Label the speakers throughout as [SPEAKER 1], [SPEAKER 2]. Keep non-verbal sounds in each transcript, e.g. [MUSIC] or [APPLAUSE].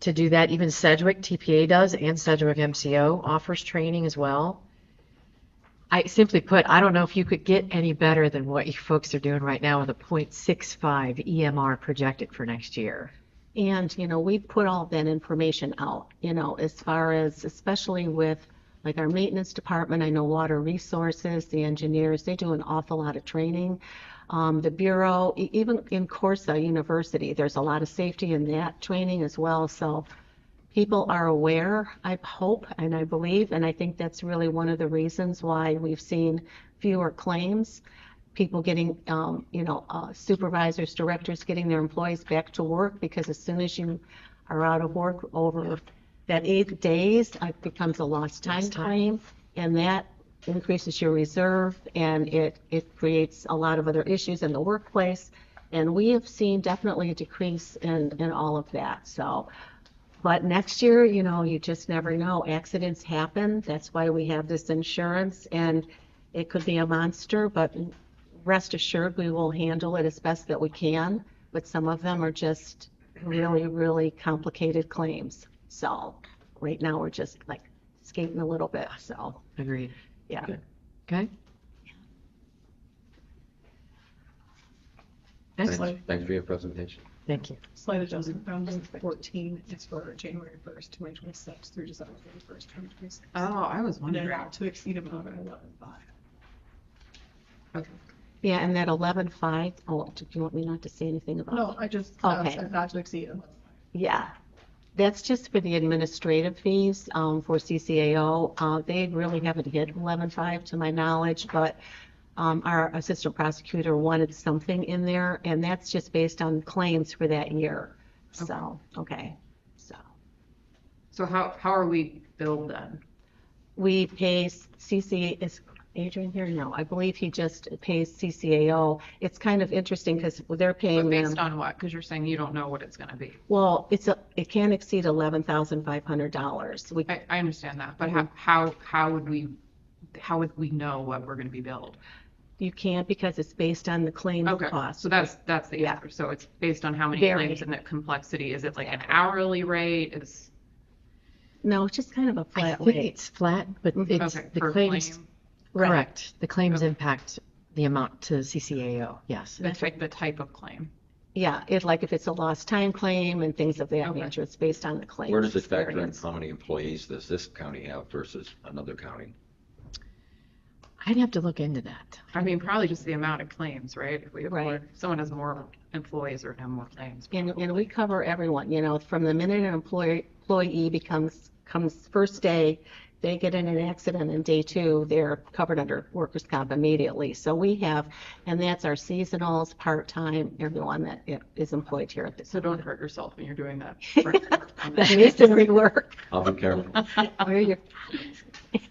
[SPEAKER 1] to do that. Even Sedgwick TPA does, and Sedgwick MCO offers training as well. I simply put, I don't know if you could get any better than what you folks are doing right now with a 0.65 EMR E projected for next year.
[SPEAKER 2] And, you know, we put all that information out, you know, as far as, especially with like our maintenance department, I know water resources, the engineers, they do an awful lot of training. Um, the Bureau, e- even in Corsa University, there's a lot of safety in that training as well. So people are aware, I hope, and I believe, and I think that's really one of the reasons why we've seen fewer claims people getting, um, you know, uh, supervisors, directors getting their employees back to work because as soon as you are out of work over that eight days, it becomes a lost time
[SPEAKER 1] Lost time.
[SPEAKER 2] claim. And that increases your reserve and it, it creates a lot of other issues in the workplace. And we have seen definitely a decrease in, in all of that. So, but next year, you know, you just never know. Accidents happen. That's why we have this insurance and it could be a monster, but rest assured, we will handle it as best that we can, but some of them are just really, really complicated claims. So right now, we're just like skating a little bit, so,
[SPEAKER 1] Agreed.
[SPEAKER 2] yeah.
[SPEAKER 1] Okay? Excellent.
[SPEAKER 3] Thanks, thanks for your presentation.
[SPEAKER 1] Thank you.
[SPEAKER 4] Slight adjustment found in fourteen is for January first, twenty twenty-six through December thirty-first, twenty twenty-six.
[SPEAKER 5] Oh, I was
[SPEAKER 4] And then
[SPEAKER 5] wondering.
[SPEAKER 4] not to exceed amount of eleven five.
[SPEAKER 5] Okay.
[SPEAKER 2] Yeah, and that 11.5, oh, do you want me not to say anything about?
[SPEAKER 4] No, I just, uh,
[SPEAKER 2] Okay.
[SPEAKER 4] said not to exceed 11,500.
[SPEAKER 2] Yeah, that's just for the administrative fees um, for CCAO. Uh, They really haven't hit 11.5 to my knowledge, but um, our assistant prosecutor wanted something in there, and that's just based on claims for that year. So, okay, so.
[SPEAKER 5] So how, how are we billed then?
[SPEAKER 2] We pay CC, is Adrian here? No, I believe he just pays CCAO. It's kind of interesting because they're
[SPEAKER 5] But
[SPEAKER 2] paying them.
[SPEAKER 5] based on what? Because you're saying you don't know what it's gonna be.
[SPEAKER 2] Well, it's, a it can exceed $11,500. We
[SPEAKER 5] I, I understand that, but how, how, how would we, how would we know what we're gonna be billed?
[SPEAKER 2] You can't because it's based on the claim
[SPEAKER 5] Okay,
[SPEAKER 2] cost.
[SPEAKER 5] so that's, that's the
[SPEAKER 2] Yeah.
[SPEAKER 5] answer. So it's based on how many
[SPEAKER 2] Very.
[SPEAKER 5] claims and the complexity. Is it like an hourly rate? Is,
[SPEAKER 2] No, it's just kind of a
[SPEAKER 1] I
[SPEAKER 2] flat
[SPEAKER 1] think
[SPEAKER 2] rate.
[SPEAKER 1] it's flat, but
[SPEAKER 2] Mhm.
[SPEAKER 1] it's
[SPEAKER 5] okay,
[SPEAKER 1] the
[SPEAKER 5] per
[SPEAKER 1] claims,
[SPEAKER 5] claim?
[SPEAKER 2] Right.
[SPEAKER 1] correct. The claims
[SPEAKER 5] Okay.
[SPEAKER 1] impact the amount to CCAO, yes.
[SPEAKER 5] The type, the type of claim.
[SPEAKER 2] Yeah, it, like if it's a lost time claim and things of that
[SPEAKER 5] Okay.
[SPEAKER 2] nature, it's based on the claim.
[SPEAKER 3] Where does it factor in
[SPEAKER 2] experience.
[SPEAKER 3] how many employees does this county have versus another county?
[SPEAKER 1] I'd have to look into that.
[SPEAKER 5] I mean, probably just the amount of claims, right? If we have
[SPEAKER 2] Right.
[SPEAKER 5] more, if someone has more employees or have more claims.
[SPEAKER 2] And, and we cover everyone, you know, from the minute an employee, employee becomes, comes first day, they get in an accident in day two, they're covered under workers' comp immediately. So we have, and that's our seasonals, part-time, everyone that is employed here at this. [LAUGHS]
[SPEAKER 5] So don't hurt yourself when you're doing that.
[SPEAKER 2] That
[SPEAKER 5] [LAUGHS]
[SPEAKER 2] is very work.
[SPEAKER 3] I'll be careful.
[SPEAKER 2] Where you're-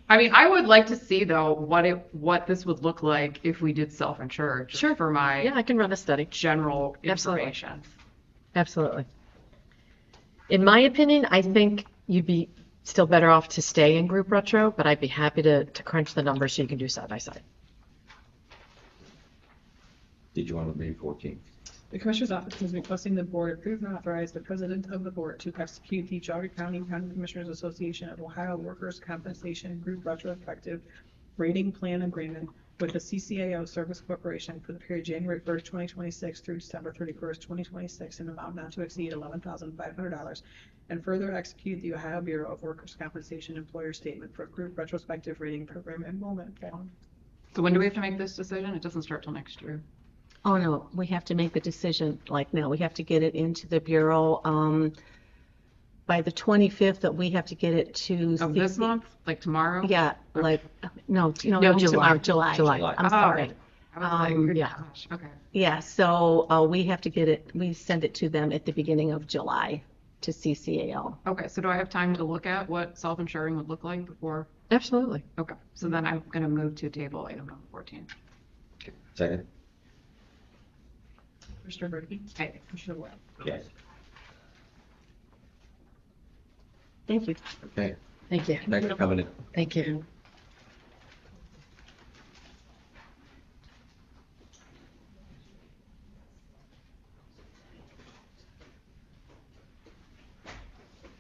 [SPEAKER 5] I mean, I would like to see though, what it, what this would look like if we did self-insure. just
[SPEAKER 1] Sure.
[SPEAKER 5] For my
[SPEAKER 1] Yeah, I can run a study.
[SPEAKER 5] general
[SPEAKER 1] Absolutely.
[SPEAKER 5] information.
[SPEAKER 1] Absolutely. In my opinion, I think you'd be still better off to stay in group retro, but I'd be happy to, to crunch the numbers so you can do side by side.
[SPEAKER 3] Did you want to leave fourteen?
[SPEAKER 4] The Commissioner's Office has been requesting the Board approve and authorize the President of the Board to execute the Geogga County County Commissioners Association of Ohio Workers' Compensation Group Retrospective Rating Plan Agreement with the CCAO Service Corporation for the period January 1st, 2026 through December 31st, 2026, in an amount not to exceed $11,500, and further execute the Ohio Bureau of Workers' Compensation Employer Statement for Group Retrospective Rating Program Enrollment Form.
[SPEAKER 5] So when do we have to make this decision? It doesn't start till next year.
[SPEAKER 2] Oh, no, we have to make the decision like now. We have to get it into the Bureau, um, by the 25th that we have to get it to.
[SPEAKER 5] Of Oh, this
[SPEAKER 2] CC
[SPEAKER 5] month, like tomorrow?
[SPEAKER 2] Yeah, like, no, no.
[SPEAKER 1] No,
[SPEAKER 2] not
[SPEAKER 1] July.
[SPEAKER 2] tomorrow, July.
[SPEAKER 1] July.
[SPEAKER 2] I'm
[SPEAKER 5] Oh,
[SPEAKER 2] sorry.
[SPEAKER 5] I was like,
[SPEAKER 2] Um,
[SPEAKER 5] good
[SPEAKER 1] yeah.
[SPEAKER 5] gosh, Okay.
[SPEAKER 2] Yeah, so, uh, we have to get it, we send it to them at the beginning of July to CCAL.
[SPEAKER 5] Okay, so do I have time to look at what self-insuring would look like before?
[SPEAKER 1] Absolutely.
[SPEAKER 5] Okay,
[SPEAKER 1] Mm-hmm.
[SPEAKER 5] so then I'm gonna move to table item number fourteen.
[SPEAKER 3] Second?
[SPEAKER 4] Commissioner Brinkley?
[SPEAKER 5] Aye.
[SPEAKER 4] Commissioner Webb?
[SPEAKER 3] Yes.
[SPEAKER 2] Thank you.
[SPEAKER 3] Okay,
[SPEAKER 1] Thank you.
[SPEAKER 3] thanks for coming in.
[SPEAKER 1] Thank you.